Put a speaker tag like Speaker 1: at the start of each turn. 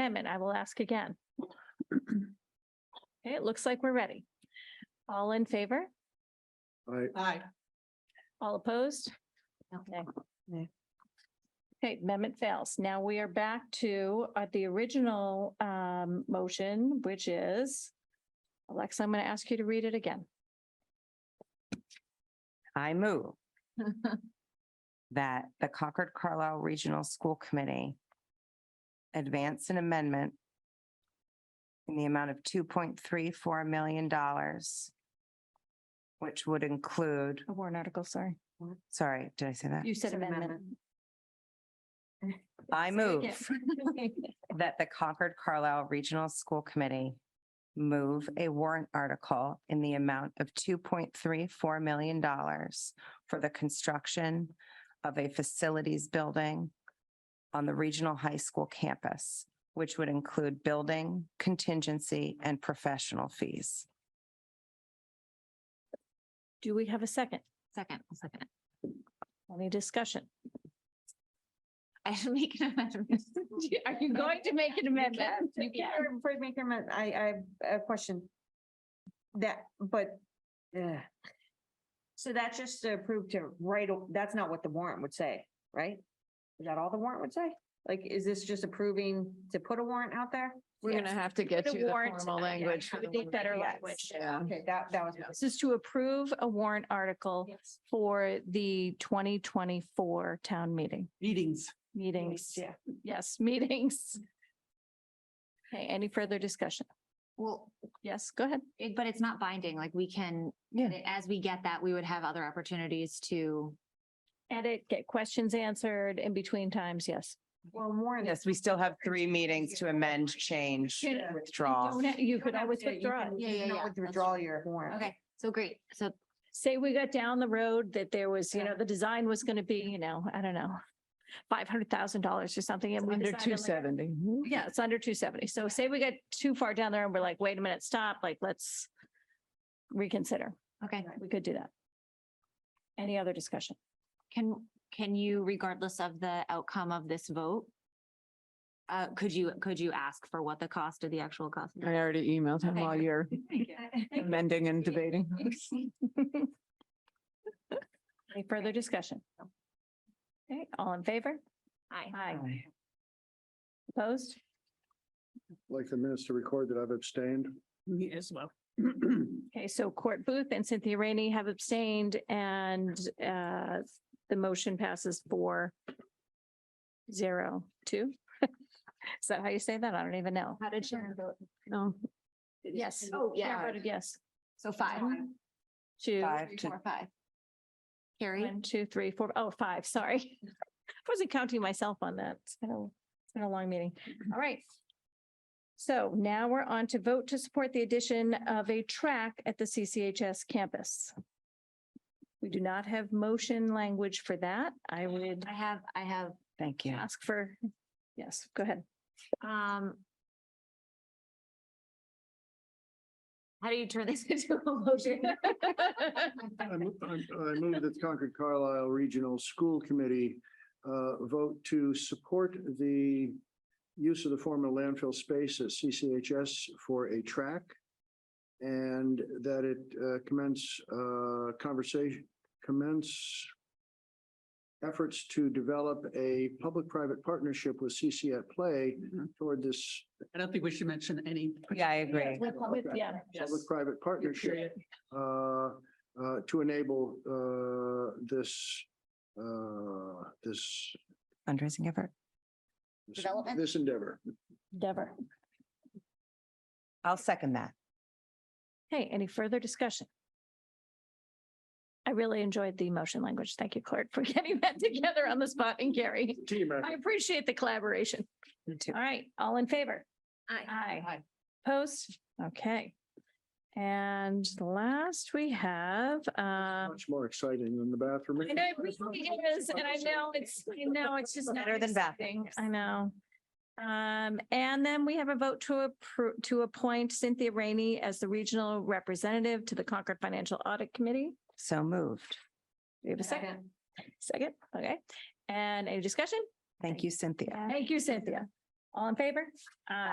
Speaker 1: assignment. I will ask again. Okay, it looks like we're ready. All in favor?
Speaker 2: I,
Speaker 3: Aye.
Speaker 1: All opposed? Okay.
Speaker 3: Nay.
Speaker 1: Okay, amendment fails. Now we are back to uh, the original um, motion, which is, Alexa, I'm going to ask you to read it again.
Speaker 4: I move that the Concord Carlisle Regional School Committee advance an amendment in the amount of two point three four million dollars, which would include,
Speaker 1: A warrant article, sorry.
Speaker 4: sorry, did I say that?
Speaker 1: You said
Speaker 3: Said
Speaker 1: amendment.
Speaker 4: I move
Speaker 1: Yeah.
Speaker 4: that the Concord Carlisle Regional School Committee move a warrant article in the amount of two point three four million dollars for the construction of a facilities building on the regional high school campus, which would include building, contingency, and professional fees.
Speaker 1: Do we have a second?
Speaker 3: Second, I'll second. it.
Speaker 1: Any discussion?
Speaker 3: I should make an amendment.
Speaker 1: Are you going to make an amendment?
Speaker 5: You
Speaker 1: Yeah.
Speaker 5: can, before you make your amendment, I, I have a question. That, but, ugh. so that's just to approve to write, a- that's not what the warrant would say, right? Is that all the warrant would say? Like, is this just approving to put a warrant out there?
Speaker 3: We're gonna have to get
Speaker 1: The
Speaker 3: you the
Speaker 1: warrant,
Speaker 3: formal
Speaker 1: yeah,
Speaker 3: language.
Speaker 1: I
Speaker 3: for the
Speaker 1: would think
Speaker 3: one-
Speaker 1: better
Speaker 3: Yes,
Speaker 1: language.
Speaker 3: Yeah.
Speaker 5: Okay, that, that was.
Speaker 1: This is to approve a warrant article for the twenty twenty-four town meeting,
Speaker 6: meetings.
Speaker 1: meetings.
Speaker 5: Yeah.
Speaker 1: Yes, meetings. Okay, any further discussion?
Speaker 7: Well,
Speaker 1: Yes, go ahead.
Speaker 7: it- but it's not binding, like we can,
Speaker 4: Yeah.
Speaker 7: as we get that, we would have other opportunities to.
Speaker 1: Edit, get questions answered in between times, yes.
Speaker 5: Well, warrant.
Speaker 4: Yes, we still have three meetings to amend, change,
Speaker 1: Yeah.
Speaker 4: withdraw.
Speaker 1: Don't ha- You
Speaker 5: You
Speaker 1: could
Speaker 5: don't
Speaker 1: always
Speaker 5: have to- you
Speaker 1: withdraw.
Speaker 5: can-
Speaker 7: Yeah,
Speaker 5: you
Speaker 7: yeah,
Speaker 5: cannot
Speaker 7: yeah, that's
Speaker 5: Withdraw
Speaker 7: true.
Speaker 5: your warrant.
Speaker 7: Okay, so great. So
Speaker 1: Say we got down the road that there was, you know, the design was going to be, you know, I don't know, five hundred thousand dollars or something. and we
Speaker 6: Under
Speaker 1: decided,
Speaker 6: two
Speaker 1: like,
Speaker 6: seventy.
Speaker 1: Yeah, it's under two seventy. So say we get too far down there and we're like, wait a minute, stop, like, let's reconsider.
Speaker 7: Okay,
Speaker 1: We could do that. Any other discussion?
Speaker 7: can, can you, regardless of the outcome of this vote, uh, could you, could you ask for what the cost of the actual cost?
Speaker 6: I already emailed him
Speaker 7: Okay.
Speaker 6: while you're amending and debating.
Speaker 1: Any further discussion? Okay, all in favor? Aye. Aye. Opposed?
Speaker 2: like the minutes to record that I've abstained.
Speaker 6: Me as well.
Speaker 1: Okay, so Court Booth and Cynthia Rainey have abstained and uh, the motion passes four zero two. Is that how you say that? I don't even know.
Speaker 7: How did Sharon vote?
Speaker 6: No,
Speaker 1: Yes.
Speaker 7: Oh,
Speaker 1: Chair
Speaker 7: yeah.
Speaker 1: voted Yes.
Speaker 7: So five.
Speaker 1: Two.
Speaker 4: Five to
Speaker 7: five. Carrie,
Speaker 1: One, two, three, four, oh, five, sorry. I wasn't counting myself on that. It's been a, it's been a long meeting. All right. So now we're on to vote to support the addition of a track at the CCHS campus. We do not have motion language for that. I would
Speaker 7: I have, I have,
Speaker 4: Thank you.
Speaker 1: ask for, yes, go ahead.
Speaker 7: um. How do you turn this into a motion?
Speaker 2: I mo- I'm- I move that the Concord Carlisle Regional School Committee uh, vote to support the use of the former landfill space at CCHS for a track and that it uh, commence uh, conversation, commence efforts to develop a public-private partnership with CC at Play toward this
Speaker 8: I don't think we should mention any.
Speaker 4: Yeah, I agree.
Speaker 1: With- Yeah,
Speaker 2: public-private partnership
Speaker 8: Period.
Speaker 2: uh, uh, to enable uh, this, uh, this,
Speaker 4: Fundraising effort.
Speaker 2: this-
Speaker 7: Development?
Speaker 2: this endeavor.
Speaker 1: Dever.
Speaker 4: I'll second that.
Speaker 1: Hey, any further discussion? I really enjoyed the motion language. Thank you, Clark, for getting that together on the spot and Gary.
Speaker 2: Team effort.
Speaker 1: I appreciate the collaboration.
Speaker 4: Me too.
Speaker 1: All right, all in favor? Aye.
Speaker 8: Aye.
Speaker 1: Post, okay. And last we have, um,
Speaker 2: Much more exciting than the bathroom.
Speaker 1: I know it really is, and I know it's, I know it's just. not
Speaker 4: Better than
Speaker 1: exciting.
Speaker 4: bathrooms.
Speaker 1: I know. Um, and then we have a vote to approve, to appoint Cynthia Rainey as the regional representative to the Concord Financial Audit Committee.
Speaker 4: So moved.
Speaker 1: Do we have a second? Second, okay. And any discussion?
Speaker 4: Thank you, Cynthia.
Speaker 1: Thank you, Cynthia. All in favor? Aye.